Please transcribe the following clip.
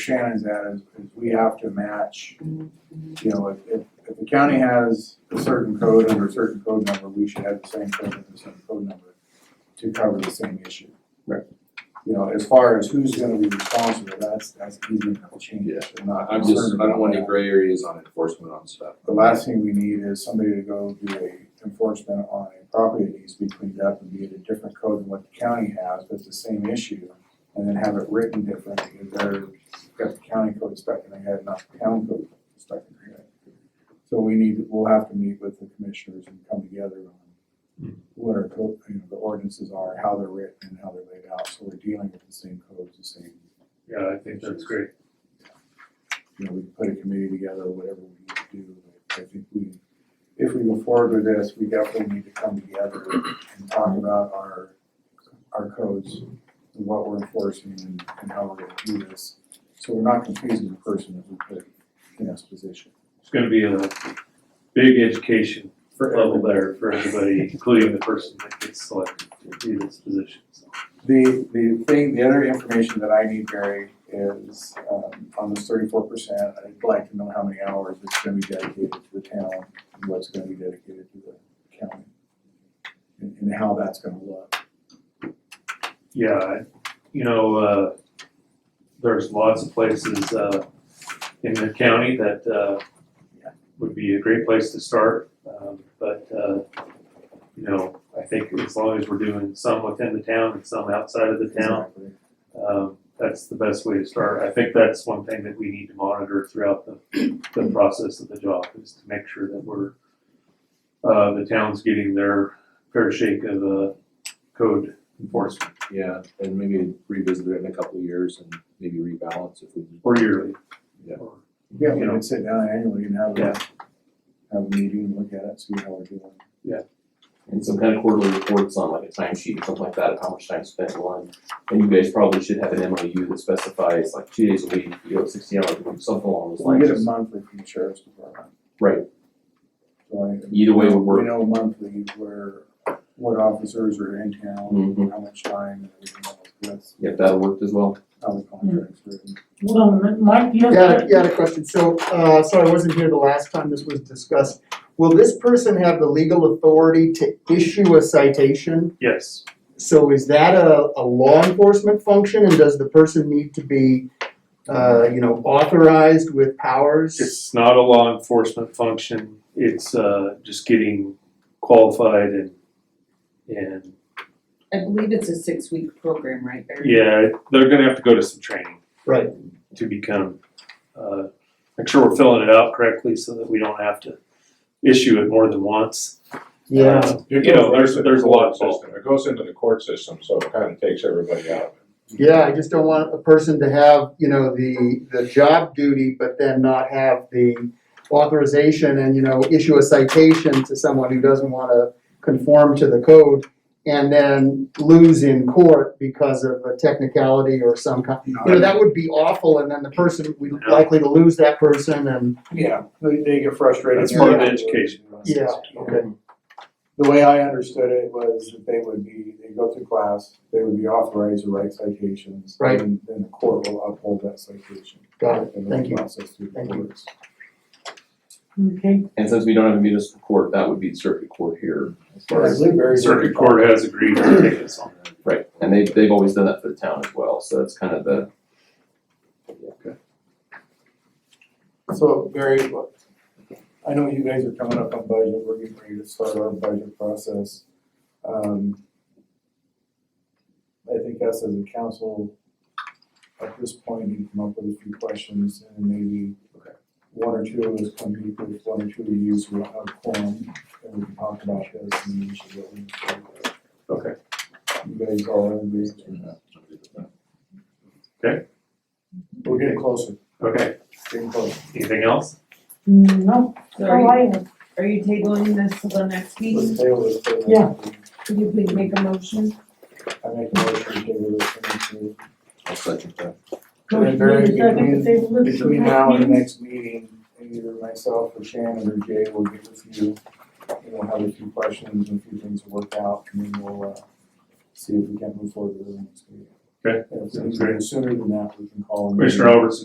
Shannon's at is, is we have to match, you know, if, if, if the county has a certain code under a certain code number, we should have the same code under the same code number to cover the same issue. Right. You know, as far as who's gonna be responsible, that's, that's easy enough change. Yeah. I'm not I'm just, concerned I don't about want any that. gray areas on enforcement on stuff. The last thing we need is somebody to go do a enforcement on a property that needs to be cleaned up and be in a different code than what the county has, but it's the same issue. And then have it written different, because they're, got the county code stuck in their head, not the town code stuck in their head. So we need, we'll have to meet with the commissioners and come together on what our code, you know, the ordinances are, how they're written and how they're laid out, so we're dealing with the same codes, the same Yeah, I think that's great. you know, we can put a committee together, whatever we need to do. I think we, if we go forward with this, we definitely need to come together and talk about our, our codes, and what we're enforcing and, and how we're gonna do this. So we're not confusing the person that we put in this position. It's gonna be a big education For level there for everybody, including the person that gets selected to be this position, so. The, the thing, the other information that I need, Barry, is, um, on this thirty-four percent, I'd like to know how many hours it's gonna be dedicated to the town, and what's gonna be dedicated to the county. And, and how that's gonna look. Yeah, I- you know, uh, there's lots of places, uh, in the county that, uh, would be a great place to start, um, but, uh, you know, I think as long as we're doing some within the town and some outside of the town, Exactly. um, that's the best way to start. I think that's one thing that we need to monitor throughout the, the process of the job is to make sure that we're, uh, the town's getting their fair shake of, uh, code enforcement Yeah, and maybe revisit it in a couple of years and maybe rebalance if we. or yearly. Yeah. Or- Yeah, we can sit down annually and have a, Yeah. have a meeting, look at it, see how we're doing. and some kind of quarterly reports on like a timesheet or something like that of how much time spent on. And you guys probably should have an MOU that specifies like two days a week, you know, sixty hours a week, something along those We lines. get a monthly from the sheriff's department. Right. So I- Either way would We work. know monthly where, what officers are in town, Mhm. how much time, and everything else, that's Yep, that worked as well. how the contract's written. Hold on a minute, Mike, do you have? Yeah, that? yeah, I had a question, so, uh, so I wasn't here the last time this was discussed. Will this person have the legal authority to issue a citation? Yes, So is that a, a law enforcement function, and does the person need to be, uh, you know, authorized with powers? it's not a law enforcement function. It's, uh, just getting qualified and, and, I believe it's a six-week program, right, Barry? yeah, they're gonna have to go to some training. Right. to become, uh, make sure we're filling it out correctly so that we don't have to issue it more than once. Yeah, Uh, You know, there's, there's a lot involved. It goes into the court system, so it kind of takes everybody out of it. yeah, I just don't want a person to have, you know, the, the job duty, but then not have the authorization and, you know, issue a citation to someone who doesn't wanna conform to the code and then lose in court because of a technicality or some kind. You know, that would be awful and then the person, we're likely to lose that person and, Yeah, they, they get frustrated. That's part of the education yeah, process. okay. The way I understood it was that they would be, they go through class, they would be authorized to write citations. Right. And then the court will uphold that citation. Got it. And Thank the you. process through the Thank you. courts. Okay, And since we don't have a municipal court, that would be circuit court here. as far as- Circuit Court has agreed to take us on that. Right, and they, they've always done that for the town as well, so that's kind of the, So Barry, look, I know you guys are coming up on budget, we're getting ready to start our budget process. Um, I think us as a council, at this point, you come up with a few questions and maybe one or two of us come meet with one or two of you, so we'll have a quorum and we can talk about this and we should really. Okay. You guys all agree? Okay. We're getting closer, Okay, getting closer. anything else? Mm, no, Are how you, are you? are you tabling this till the next meeting? Let's table this for the next Yeah. meeting. Could you please make a motion? I make a motion to table this for next meeting. I'll second that. And then Barry, between, Table this for between now and the meeting. next meeting, either myself or Shannon or Jay will get with you. And we'll have a few questions and a few things to work out, and then we'll, uh, see if we can move forward with the next meeting. Okay, If sounds it's sooner than that, we can call. a meeting. Commissioner Albertson